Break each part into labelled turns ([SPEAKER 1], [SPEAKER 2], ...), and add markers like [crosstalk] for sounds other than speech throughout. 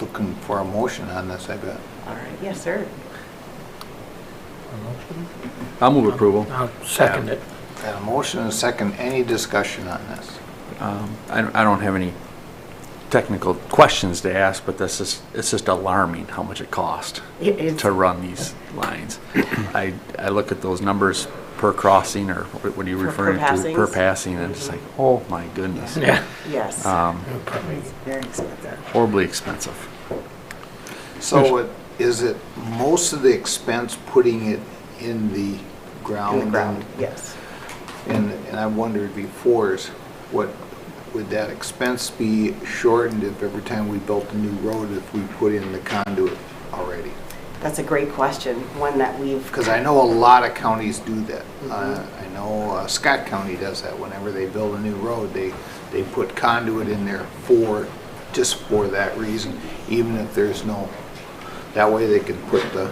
[SPEAKER 1] looking for a motion on this, I bet.
[SPEAKER 2] All right, yes, sir.
[SPEAKER 3] I'll move approval.
[SPEAKER 4] I'll second it.
[SPEAKER 1] Got a motion and a second, any discussion on this?
[SPEAKER 3] Um, I don't I don't have any technical questions to ask, but this is, it's just alarming how much it cost
[SPEAKER 2] It is-
[SPEAKER 3] to run these lines. I, I look at those numbers per crossing, or what what are you
[SPEAKER 2] Per- per
[SPEAKER 3] referring to?
[SPEAKER 2] passings.
[SPEAKER 3] passing, and it's like, oh my goodness.
[SPEAKER 4] Yeah.
[SPEAKER 2] Yes.
[SPEAKER 3] Um,
[SPEAKER 2] It's very expensive.
[SPEAKER 3] Horribly expensive.
[SPEAKER 1] So it- is it most of the expense putting it in the ground?
[SPEAKER 2] Good ground, yes.
[SPEAKER 1] And, and I wondered before is what, would that expense be shortened if every time we built a new road, if we put in the conduit already?
[SPEAKER 2] That's a great question, one that we've,
[SPEAKER 1] Because I know a lot of counties do that. Uh, I know uh, Scott County does that. Whenever they build a new road, they, they put conduit in there for, just for that reason, even if there's no, that way they can put the,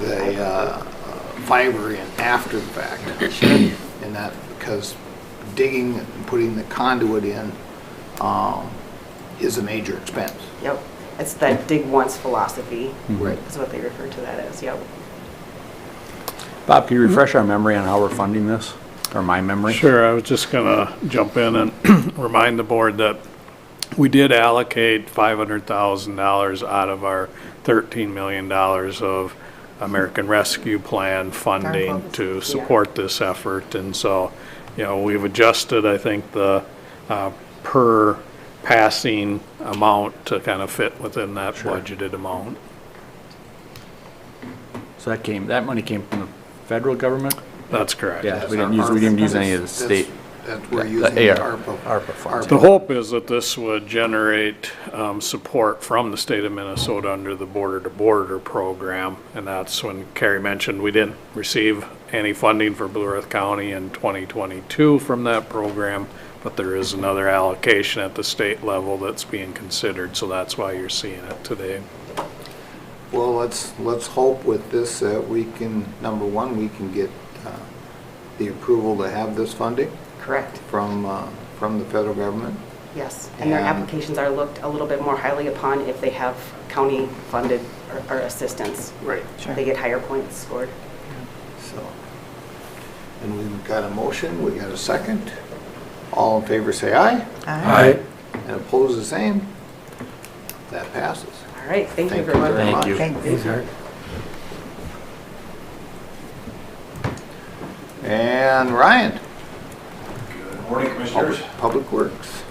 [SPEAKER 1] the uh, fiber in after the fact. And that, because digging, and putting the conduit in um, is a major expense.
[SPEAKER 2] yep, it's that dig once philosophy,
[SPEAKER 1] Right.
[SPEAKER 2] is what they refer to that as, yep.
[SPEAKER 3] Bob, can you refresh our memory on how we're funding this? Or my memory?
[SPEAKER 5] Sure, I was just going to jump in and [clears throat] remind the board that we did allocate $500,000 out of our $13 million of American Rescue Plan funding
[SPEAKER 2] Focus, yeah.
[SPEAKER 5] to support this effort. And so, you know, we've adjusted, I think, the uh, per passing amount to kind of fit within that budgeted amount.
[SPEAKER 3] So that came, that money came from the federal government?
[SPEAKER 5] That's correct.
[SPEAKER 3] Yeah, we didn't use, we didn't use any of the state.
[SPEAKER 1] That's- That we're
[SPEAKER 3] the
[SPEAKER 1] using
[SPEAKER 3] AR
[SPEAKER 1] ARPA.
[SPEAKER 3] ARPA funds.
[SPEAKER 5] The hope is that this would generate um, support from the state of Minnesota under the Border to Border program. And that's when Carrie mentioned we didn't receive any funding for Blue Earth County in 2022 from that program, but there is another allocation at the state level that's being considered, so that's why you're seeing it today.
[SPEAKER 1] Well, let's, let's hope with this that we can, number one, we can get uh, the approval to have this funding
[SPEAKER 2] Correct,
[SPEAKER 1] from, uh, from the federal government.
[SPEAKER 2] yes. And their
[SPEAKER 1] And-
[SPEAKER 2] applications are looked a little bit more highly upon if they have county-funded or- or assistance.
[SPEAKER 1] Right.
[SPEAKER 2] They get higher points scored.
[SPEAKER 1] So, and we've got a motion, we got a second. All in favor, say aye.
[SPEAKER 4] Aye.
[SPEAKER 1] And opposed, the same. That passes.
[SPEAKER 2] All right, thank you,
[SPEAKER 1] Thank you
[SPEAKER 2] everyone.
[SPEAKER 1] very
[SPEAKER 3] Thank
[SPEAKER 1] much.
[SPEAKER 3] you.
[SPEAKER 1] And Ryan,
[SPEAKER 6] Morning, Commissioners.
[SPEAKER 1] Public Works.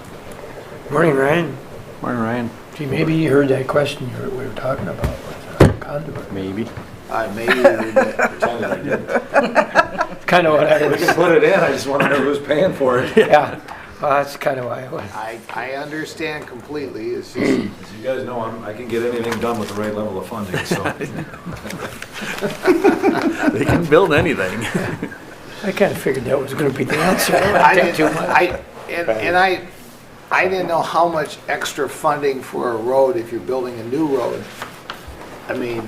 [SPEAKER 4] Morning, Ryan.
[SPEAKER 3] Morning, Ryan.
[SPEAKER 4] Gee, maybe you heard that question you were- we were talking about with uh, conduit.
[SPEAKER 3] Maybe.
[SPEAKER 1] I may read
[SPEAKER 4] [laughs]
[SPEAKER 1] that.
[SPEAKER 6] Pretended I didn't.
[SPEAKER 4] Kind of what I
[SPEAKER 6] We can
[SPEAKER 4] was,
[SPEAKER 6] put it in, I just want to know who's paying for it. As
[SPEAKER 4] yeah, well, that's kind of why I was.
[SPEAKER 1] I, I understand completely, it's just
[SPEAKER 4] Mm.
[SPEAKER 6] you guys know, I'm- I can get anything done with the right level of funding, so.
[SPEAKER 3] They can build anything.
[SPEAKER 4] I kind of figured that was going to be the answer.
[SPEAKER 1] I
[SPEAKER 4] I didn't think too
[SPEAKER 1] didn't,
[SPEAKER 4] much.
[SPEAKER 1] I, and, and I, I didn't know how much extra funding for a road, if you're building a new road. I mean,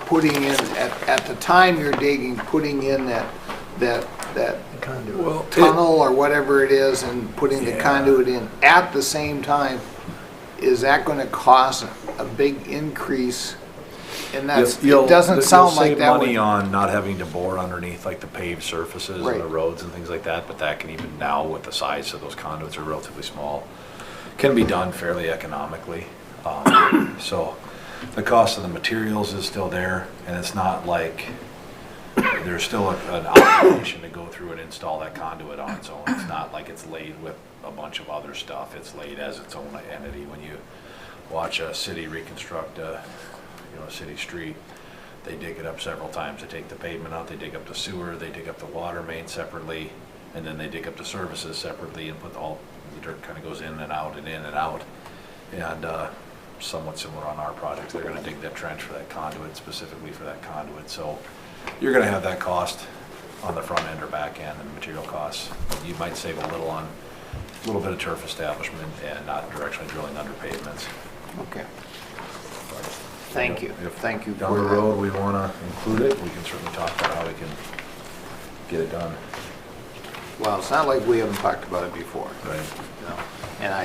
[SPEAKER 1] putting in, at, at the time you're digging, putting in that, that, that
[SPEAKER 4] Conduit.
[SPEAKER 1] tunnel or whatever it is and putting the conduit in at the same time, is that gonna cause a big increase? And that's,
[SPEAKER 6] You'll-
[SPEAKER 1] it doesn't
[SPEAKER 6] you'll
[SPEAKER 1] sound like that
[SPEAKER 6] Save money
[SPEAKER 1] would.
[SPEAKER 6] on not having to bore underneath like the paved surfaces
[SPEAKER 1] Right.
[SPEAKER 6] and the roads and things like that, but that can even now with the size of those conduits are relatively small, can be done fairly economically. Um, [coughs] So the cost of the materials is still there and it's not like, there's still a- an obligation to go through and install that conduit on its own. It's not like it's laid with a bunch of other stuff. It's laid as its own entity. When you watch a city reconstruct a, you know, a city street, they dig it up several times. They take the pavement out, they dig up the sewer, they dig up the water main separately, and then they dig up the services separately and put all, the dirt kind of goes in and out and in and out. And uh, somewhat similar on our project, they're going to dig that trench for that conduit, specifically for that conduit. So you're going to have that cost on the front end or back end and material costs. You might save a little on, a little bit of turf establishment and not directionally drilling under pavements.
[SPEAKER 1] Okay. Thank you,
[SPEAKER 6] If
[SPEAKER 1] thank you
[SPEAKER 6] Down
[SPEAKER 1] for
[SPEAKER 6] the
[SPEAKER 1] that.
[SPEAKER 6] road, we want to include it, we can certainly talk about how we can get it done.
[SPEAKER 1] Well, it's not like we haven't talked about it before,
[SPEAKER 6] Right.
[SPEAKER 1] you know, and I